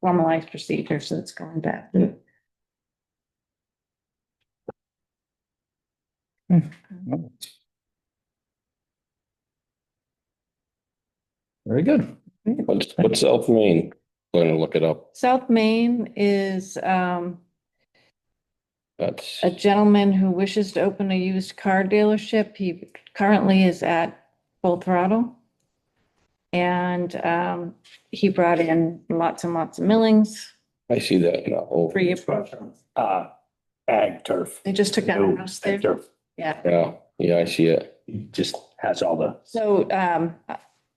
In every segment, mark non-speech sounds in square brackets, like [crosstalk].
formalized procedure, so it's going back. Very good. What's, what's South Main? Going to look it up. South Main is, um, That's, a gentleman who wishes to open a used car dealership. He currently is at full throttle. And um, he brought in lots and lots of millings I see that now. Oh, for you. Uh, ag turf. They just took Oh, down the house there. Ag turf. Yeah. Yeah, yeah, I see it. He Just has all the, So um,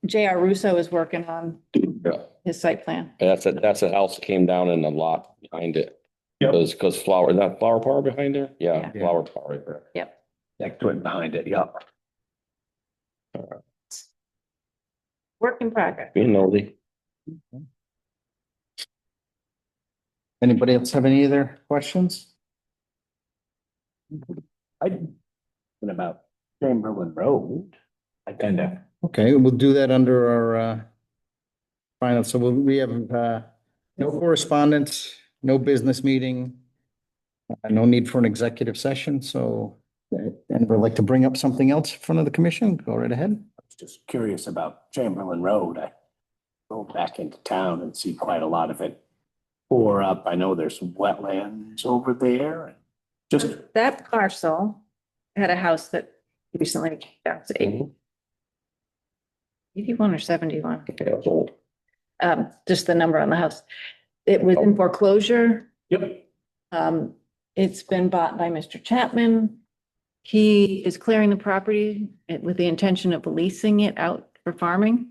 JR Russo is working on Yeah. his site plan. That's a, that's a house that came down in the lot behind it. Yep. Cause, 'cause flower, is that flower power behind there? Yeah, Yeah. flower power right there. that twin behind it, yeah. Work in progress. You know, the, Anybody else have any other questions? I, what about Chamberlain Road? I kind of, Okay, we'll do that under our uh final, so we'll- we have uh no correspondence, no business meeting. uh, No need for an executive session, so uh, and would like to bring up something else in front of the commission, go right ahead. I was just curious about Chamberlain Road. I go back into town and see quite a lot of it pour up. I know there's wetlands over there. Just, That parcel had a house that recently came down to eighty- Mhm. eighty-one or seventy-one. yeah, it was old. um, just the number on the house. It was Oh. in foreclosure. yep, Um, it's been bought by Mr. Chapman. He is clearing the property with the intention of leasing it out for farming.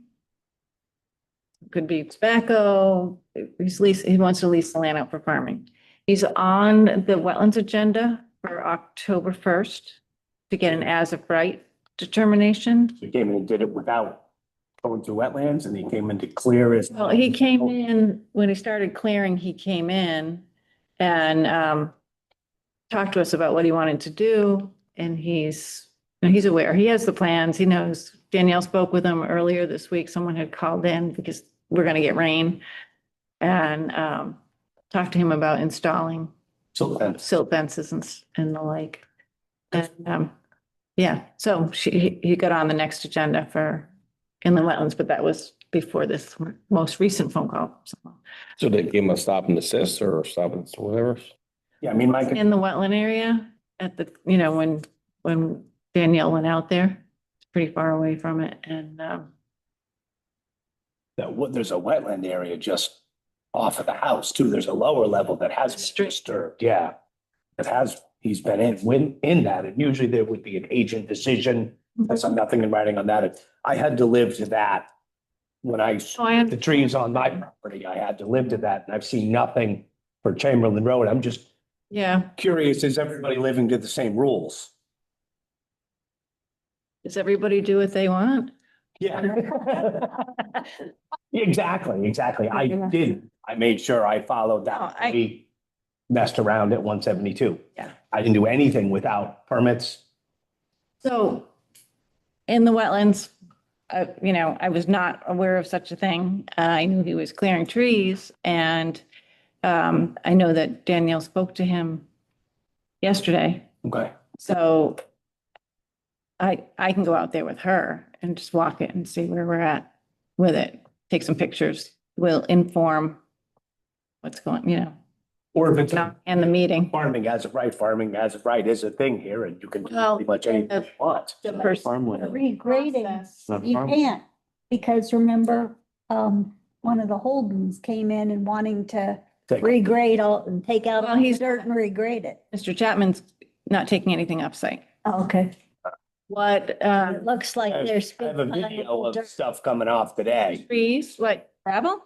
Could be tobacco. He's lease, he wants to lease the land out for farming. He's on the wetlands agenda for October first to get an as of right determination. he came in and did it without going through wetlands and he came in to clear his. Well, he came in, when he started clearing, he came in and um talked to us about what he wanted to do and he's, and he's aware, he has the plans, he knows. Danielle spoke with him earlier this week, someone had called in because we're gonna get rain. And um talked to him about installing So that's silt fences and s- and the like. And um, yeah, so she, he- he got on the next agenda for inland wetlands, but that was before this most recent phone call. So, So they gave him a stop and assist or stop and whatever. Yeah, I mean, my, In the wetland area at the, you know, when, when Danielle went out there, it's pretty far away from it and um, that what, there's a wetland area just off of the house too. There's a lower level that has been Strip. disturbed, yeah. That has, he's been in, when, in that, and usually there would be an agent decision. That's nothing in writing on that. I had to live to that. When I, so I, the trees on my property, I had to live to that and I've seen nothing for Chamberlain Road. I'm just yeah, curious, is everybody living to the same rules? does everybody do what they want? Yeah. [laughs] Exactly, exactly. I did. I made sure I followed No, that. I- We messed around at one seventy-two. Yeah. I didn't do anything without permits. So in the wetlands, uh, you know, I was not aware of such a thing. Uh, I knew he was clearing trees and um, I know that Danielle spoke to him yesterday. Okay. So I, I can go out there with her and just walk it and see where we're at with it. Take some pictures. We'll inform what's going, you know, Or if it's and the meeting. farming as of right, farming as of right is a thing here and you can do Well, pretty much anything the- you want. the person- Farmland. regrading, Process. you can't, because remember, um, one of the Holdens came in and wanting to Take- regrade all, and take out Well, all he's- his dirt and regrade it. Mr. Chapman's not taking anything off site. Okay. What, uh, It looks like I have- there's. I have a big video piles of of dirt. stuff coming off today. trees, like gravel?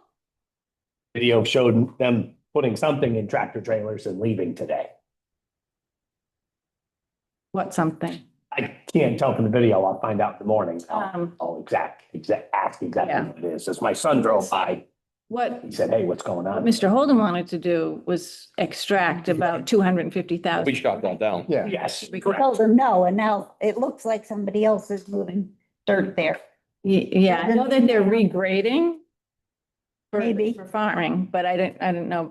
Video showed them putting something in tractor trailers and leaving today. What something? I can't tell from the video. I'll find out in the morning. I'll- Um, Oh, exact, exact, ask Yeah. exactly what it is. As my son drove by, what he said, hey, what's going what on? Mr. Holden wanted to do was extract about two hundred and fifty We thousand. shot that down. Yeah. Yes. We I Told him no, and now it looks like somebody else is moving dirt there. Yeah, I know that they're regrading. for- Maybe. For farming, but I didn't, I didn't know